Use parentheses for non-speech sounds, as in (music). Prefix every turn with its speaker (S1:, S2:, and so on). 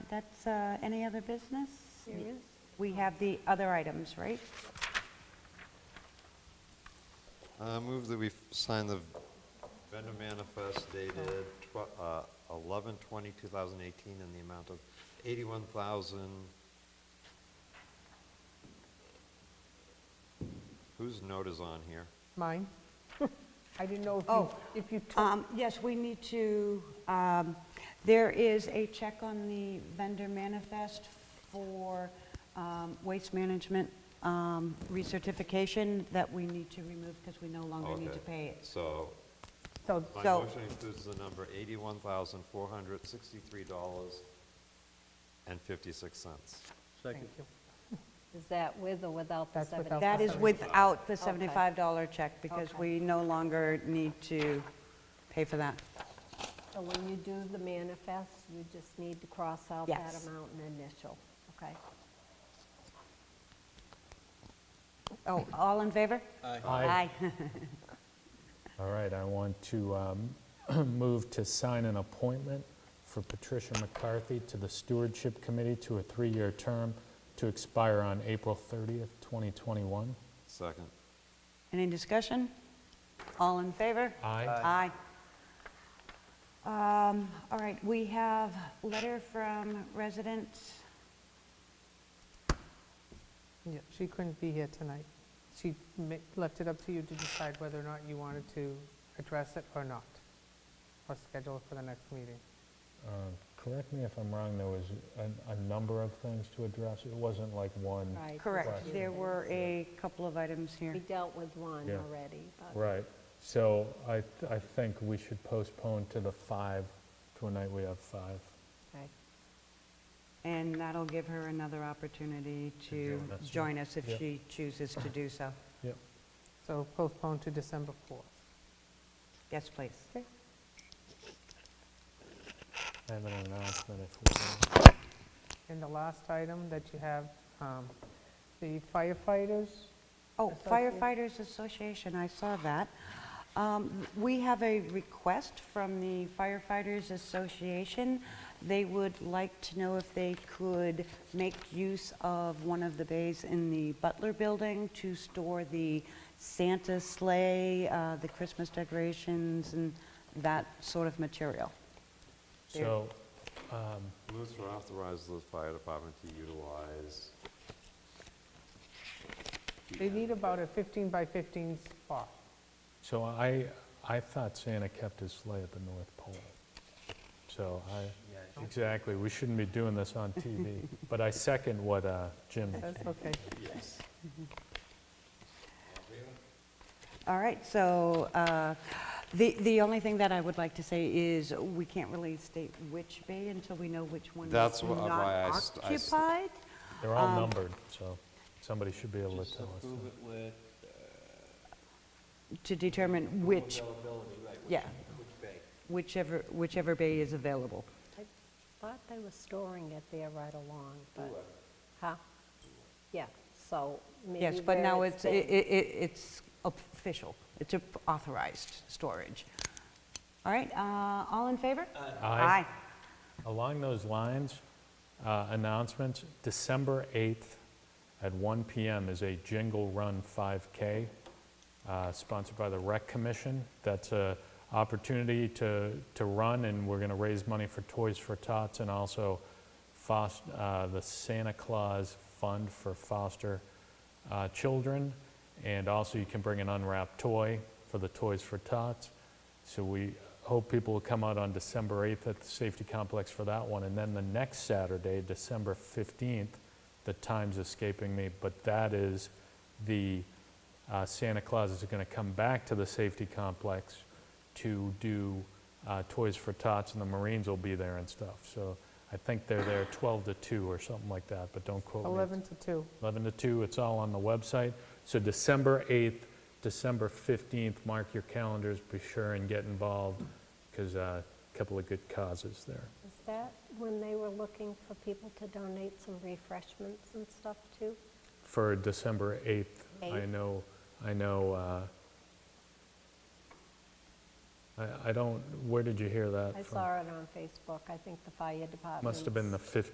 S1: that's, uh, any other business? We have the other items, right?
S2: Uh, move that we f- sign the vendor manifest dated tw- uh, 11/20/2018 in the amount of 81,000. Whose note is on here?
S3: Mine? (laughs) I didn't know if you,
S1: Oh,
S3: if you took,
S1: Um, Yes, we need to, um, there is a check on the vendor manifest for um, waste management um, recertification that we need to remove because Oh, we no longer need
S2: Okay.
S1: to pay it.
S2: So,
S3: so,
S2: my
S1: So-
S2: motion includes the number $81,463.56.
S3: thank you.
S4: Is that with or without the
S3: That's without the
S4: 70?
S1: That is without the
S4: Okay.
S1: $75 check because
S4: Okay.
S1: we no longer need to pay for that.
S4: So when you do the manifest, you just need to cross out that
S1: Yes.
S4: amount and initial, okay?
S1: Oh, all in favor? Aye.
S5: All right, I want to um, (clears throat) move to sign an appointment for Patricia McCarthy to the Stewardship Committee to a three-year term to expire on April 30th, 2021.
S2: Second.
S1: Any discussion? All in favor?
S5: Aye.
S1: Aye. Um, All right, we have letter from residents.
S3: Yeah, she couldn't be here tonight. She ma- left it up to you to decide whether or not you wanted to address it or not, or schedule it for the next meeting.
S5: Um, Correct me if I'm wrong, there was a- a number of things to address. It wasn't like one.
S4: Right.
S1: Correct,
S5: Right.
S1: there were a couple of items
S4: We
S1: here.
S4: dealt with one
S5: Yeah.
S4: already, but
S5: Right. So I th- I think we should postpone to the 5, to a night we have 5.
S4: okay.
S1: And that'll give her another opportunity to
S5: join us, yeah.
S1: join us if
S5: Yeah.
S1: she chooses to do so.
S5: Yep.
S3: So postpone to December 4th.
S1: Yes, please.
S3: Okay.
S5: I have an announcement if we can.
S3: And the last item that you have, um, the firefighters,
S1: Oh, firefighters association, I saw that. Um, We have a request from the firefighters association. They would like to know if they could make use of one of the bays in the Butler Building to store the Santa sleigh, uh, the Christmas decorations, and that sort of material. There.
S5: So
S2: Move to authorize the fire department to utilize.
S3: they need about a 15 by 15 spot.
S5: So I, I thought Santa kept his sleigh at the North Pole. So I, exactly, we shouldn't be doing this on TV. But I second what uh, Jim,
S3: That's okay.
S2: Yes.
S1: All right, so uh, the the only thing that I would like to say is, we can't really state which bay until we know which one is not
S2: That's wha- why I st- I st-
S1: occupied.
S5: they're all numbered, so somebody should be able to
S6: Just
S5: tell us.
S6: approve
S5: that.
S6: it with
S1: To determine which,
S6: availability, right, which-
S1: yeah,
S6: which bay.
S1: whichever, whichever bay is available.
S4: I thought they were storing it there right along, but, huh? Yeah, so maybe
S1: Yes, but
S4: where
S1: now it's, i- i-
S4: been-
S1: i- it's official, it's a- authorized storage. All right, uh, all in favor?
S5: Aye. Along those lines, uh, announcements, December 8th at 1 PM is a Jingle Run 5K uh, sponsored by the Rec Commission. That's a opportunity to, to run, and we're going to raise money for Toys for Tots and also fos- uh, the Santa Claus Fund for Foster uh, Children. And also, you can bring an unwrapped toy for the Toys for Tots. So we hope people will come out on December 8th at the Safety Complex for that one. And then the next Saturday, December 15th, the time's escaping me, but that is the uh, Santa Claus is going to come back to the safety complex to do uh, Toys for Tots, and the Marines will be there and stuff. So I think they're there 12 to 2 or something like that, but don't quote me.
S3: 11 to 2.
S5: 11 to 2, it's all on the website. So December 8th, December 15th, mark your calendars, be sure and get involved, because a couple of good causes there.
S4: Is that when they were looking for people to donate some refreshments and stuff too?
S5: for December 8th. I
S4: Eighth.
S5: know, I know, uh, I I don't, where did you hear that
S4: I
S5: from?
S4: saw it on Facebook, I think the fire department.
S5: Must have been the 15th.